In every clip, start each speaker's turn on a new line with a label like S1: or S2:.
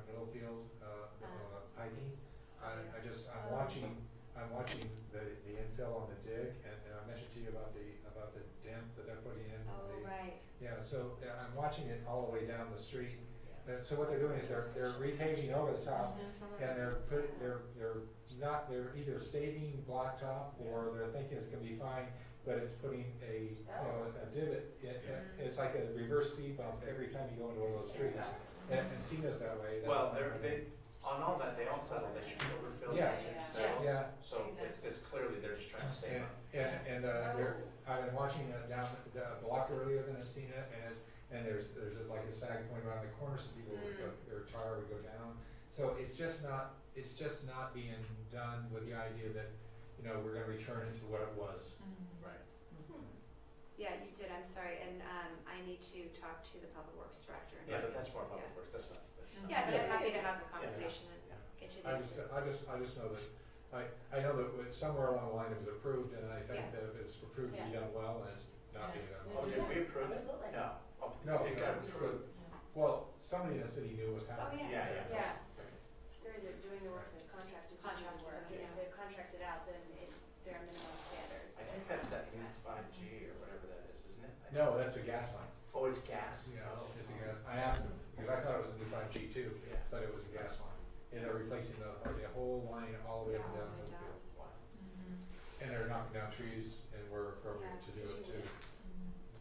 S1: uh,
S2: Uh. Um.
S1: watching, I'm watching the, the infill on the dig, and, and I mentioned to you about the, about the dent that they're putting in.
S2: Oh,
S1: the-
S2: right.
S1: Yeah, so uh, I'm watching it all the way down the street,
S3: Yeah.
S1: and so what they're doing is they're, they're repaving over the top,
S2: Mhm. Some of
S1: and they're
S2: it's-
S1: put, they're, they're not, they're either saving blacktop, or they're thinking it's gonna be fine, but it's putting a, you know,
S2: Oh.
S1: a divot, it, it-
S2: Mm-hmm.
S1: it's like a reverse speed bump every time you go into one of those streets.
S3: Exactly.
S1: And, and Cena's that way. that's what
S3: Well, they're,
S1: I'm
S3: they,
S1: thinking.
S3: on all that, they all said that they should overfill
S1: Yeah.
S3: their
S2: Yeah.
S3: cells.
S1: Yeah.
S3: So it's, it's clearly they're just trying to
S1: And,
S3: save up.
S1: and, and, uh, there, I've been watching it down the a block earlier than I've seen it, and it's, and there's, there's like a sag point around the corner, so people would go,
S2: Mm.
S1: their tire would go down. So it's just not, it's just not being done with the idea that, you know, we're gonna return it to what it was.
S3: Right.
S2: "Hmm." Yeah, you did, I'm sorry, and, um, I need to talk to the public works director. and
S3: Yeah,
S2: see-
S3: but that's more public works, that's not, that's not.
S2: Yeah, but I'm
S1: Yeah.
S2: happy to have the conversation
S3: Yeah.
S2: and get you the
S1: I just, uh,
S2: answer.
S1: I just, I just know that, I, I know that when- somewhere along the line it was approved, and I think
S2: Yeah.
S1: that it's approved to be done well, and it's not being done well.
S3: Oh, did we approve?
S4: Does it look like-
S3: No. Oh,
S1: No,
S3: It got approved.
S1: Well, somebody in the city knew what was
S2: Oh,
S1: happening.
S2: yeah.
S3: Yeah, yeah.
S4: Yeah, they're either doing the work, they've contracted to do the work, and if
S2: Yeah.
S4: they've contracted out, then it, there are minimum standards.
S3: I think that's that new five G or whatever that is, isn't it? I-
S1: No, that's a gas line.
S3: Oh, it's gas.
S1: Yeah,
S3: Oh.
S1: it's a gas, I asked him, because I thought it was a new five G two,
S3: Yeah.
S1: but it was a gas line. And they're replacing the, the whole line all the way down to the field.
S3: Wow.
S1: And they're knocking down trees and were appropriate to do it too.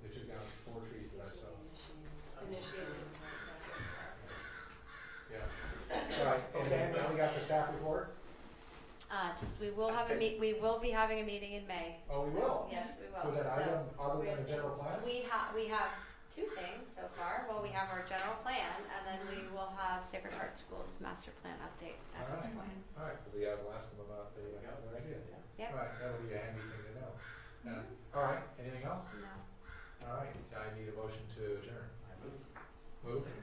S1: They took down four trees that I saw.
S4: Initiated.
S1: Yeah. All right, and then now we got the staff report?
S2: Uh, just, we will have a meet, we will be having a meeting in May.
S1: Oh, we will.
S2: Yes, we will,
S1: Was that
S2: so.
S1: item other than the general plan?
S2: We have, we have two things so far. Well, we have our general plan, and then we will have Sacred Heart School's master plan update at this
S1: Alright.
S2: point.
S1: All right, we have last one about the, uh, the idea.
S2: Yep. Mm-hmm.
S1: All right, that'll be a handy thing to know. Yeah. All right, anything else?
S2: No.
S1: All right, I need a motion to adjourn.
S3: I moved.
S1: Move.